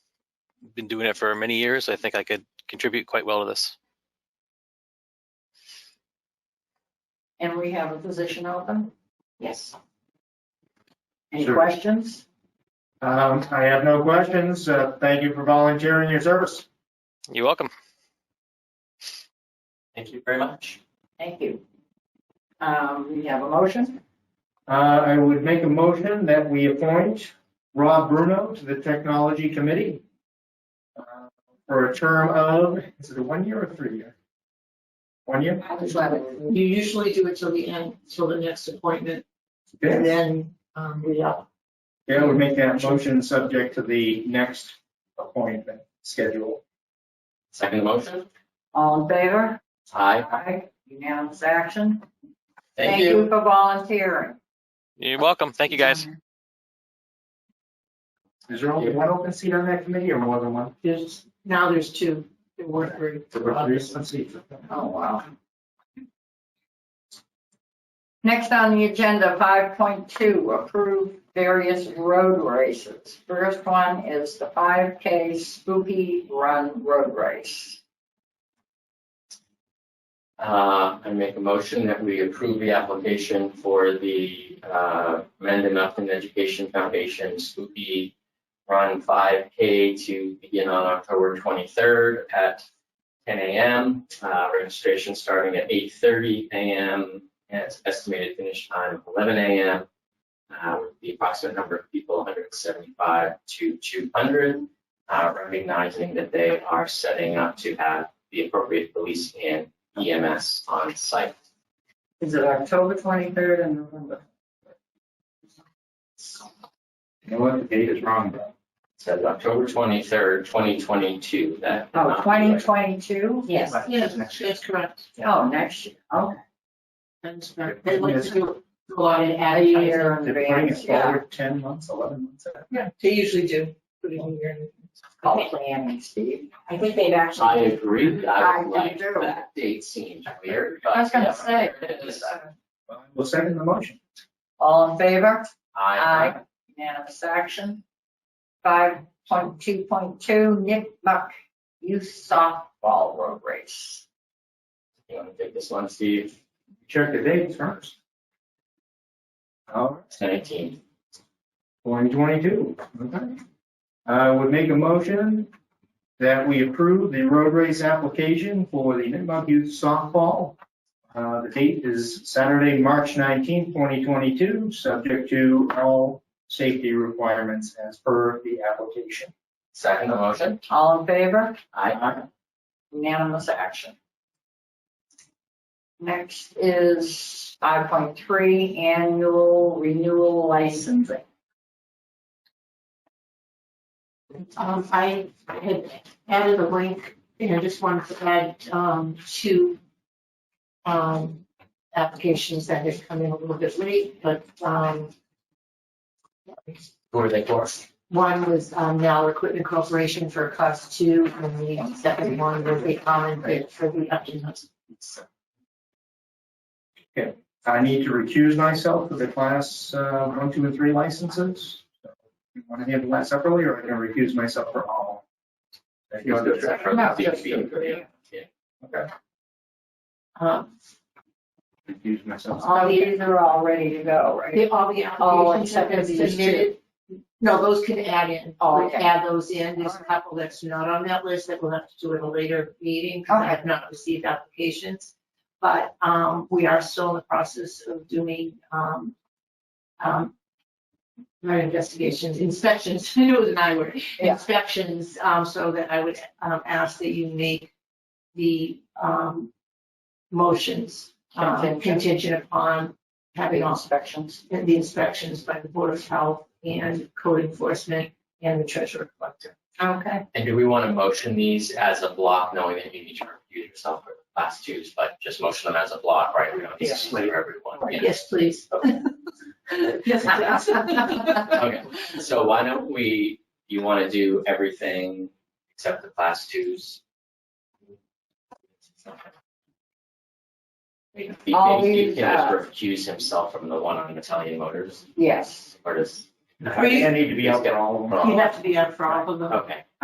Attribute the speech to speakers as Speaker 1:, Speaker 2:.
Speaker 1: been doing it for many years. I think I could contribute quite well to this.
Speaker 2: And we have a position open? Yes. Any
Speaker 3: Sure.
Speaker 2: questions?
Speaker 3: Um, I have no questions. Uh, thank you for volunteering your service.
Speaker 1: You're welcome.
Speaker 4: Thank you very much.
Speaker 2: Thank you. Um, we have a motion.
Speaker 3: Uh, I would make a motion that we appoint Rob Bruno to the Technology Committee uh, for a term of, is it a one year or three year? One year?
Speaker 5: You usually do it till the end, till the next appointment, and
Speaker 3: Okay.
Speaker 5: then, um, we up.
Speaker 3: Yeah, I would make that motion subject to the next appointment schedule.
Speaker 4: Second motion?
Speaker 2: All in favor?
Speaker 4: Aye.
Speaker 2: Aye. Unanimous action.
Speaker 4: Thank you.
Speaker 2: for volunteering.
Speaker 1: You're welcome. Thank you, guys.
Speaker 3: Is there only one open seat on that committee or more than one?
Speaker 5: There's, now there's two, there were three.
Speaker 3: Let's see.
Speaker 2: Oh, wow. Next on the agenda, five point two, approve various road races. First one is the five K Spooky Run Road Race.
Speaker 4: Uh, I make a motion that we approve the application for the, uh, Mendon Upton Education Foundation Spooky Run five K to begin on October twenty-third at ten AM. Uh, registration starting at eight thirty AM and it's estimated finish time of eleven AM. Uh, with the approximate number of people, hundred and seventy-five to two hundred, uh, recognizing that they are setting up to have the appropriate police and EMS E on site.
Speaker 2: Is it October twenty-third and November?
Speaker 3: You know what, the date is wrong, bro.
Speaker 4: Says October twenty-third, twenty twenty-two, that.
Speaker 2: Oh, twenty twenty-two?
Speaker 6: Yes.
Speaker 5: Yes, that's correct.
Speaker 2: Oh, next year, okay.
Speaker 5: That's correct. They like to do a lot in ad-
Speaker 2: A year in
Speaker 3: They're putting it
Speaker 2: advance, yeah.
Speaker 3: forward ten months, eleven months. out.
Speaker 5: Yeah, they usually do. put it in here.
Speaker 2: Call planning, Steve.
Speaker 6: I think they've actually.
Speaker 4: I agree, I
Speaker 2: I
Speaker 4: would like
Speaker 2: do.
Speaker 4: that date seems weird, but.
Speaker 2: I was gonna
Speaker 4: yeah,
Speaker 2: say.
Speaker 4: it is.
Speaker 3: Well, We'll second the motion.
Speaker 2: All in favor?
Speaker 4: I,
Speaker 2: Aye. Unanimous action. Five point two point two, Nick Buck Youth Softball Road Race.
Speaker 4: you wanna take this one, Steve,
Speaker 3: Check the dates first. Oh,
Speaker 4: it's nineteen.
Speaker 3: 2022, okay. I would make a motion that we approve the road race application for the Nipmuc Youth Softball. Uh, The date is Saturday, March 19, 2022, subject to all safety requirements as per the application.
Speaker 4: Second the motion,
Speaker 2: All in favor?
Speaker 4: I,
Speaker 2: Unanimous action. Next is five point three, Annual Renewal Licensing.
Speaker 5: Um, I I had added a link, and I just wanted to add, um, two, um, applications that had come in a little bit late, but, um,
Speaker 4: who are they for?
Speaker 5: One was um, Now Equipment Corporation for class two, and the second one was a common bid for the Upton Hudson.
Speaker 3: I need to recuse myself for the class uh, 1, 2, and 3 licenses. So, You want to handle that separately, or I can recuse myself for all? If you want to-
Speaker 4: From the DPW.
Speaker 5: Uh,
Speaker 3: recuse myself.
Speaker 2: All these are all ready to go, right?
Speaker 5: the- All the
Speaker 2: All
Speaker 5: applications
Speaker 2: except
Speaker 5: have been
Speaker 2: for these
Speaker 5: submitted. No, those can add in,
Speaker 2: Oh,
Speaker 5: we
Speaker 2: okay.
Speaker 5: add those in. There's a couple that's not on that list that we'll have to do at a later meeting. 'cause I have not received applications. But um, we are still in the process of doing um, um, not investigations, inspections. I knew it was an I word.
Speaker 2: Yeah.
Speaker 5: inspections, um, so that I would, um, ask that you make the, um, motions, um,
Speaker 2: Contingent.
Speaker 5: contingent upon having all
Speaker 2: Inspections.
Speaker 5: the inspections by the Board of Health and code enforcement and the treasurer collector.
Speaker 2: Okay.
Speaker 4: And do we wanna motion these as a block, knowing that you need to recuse yourself for the last twos, but just motion them as a block, right? We don't need to split everyone. Yeah.
Speaker 5: Yes, please. Yes, please.
Speaker 4: Okay, so why don't we, you wanna do everything except the class twos? Maybe
Speaker 2: All
Speaker 4: maybe he
Speaker 2: these,
Speaker 4: can just
Speaker 2: uh,
Speaker 4: recuse himself from the one on Italian Motors,
Speaker 2: Yes.
Speaker 4: or does,
Speaker 3: I think I need to be out for all of them.
Speaker 5: You have to be up for all of them.
Speaker 4: okay.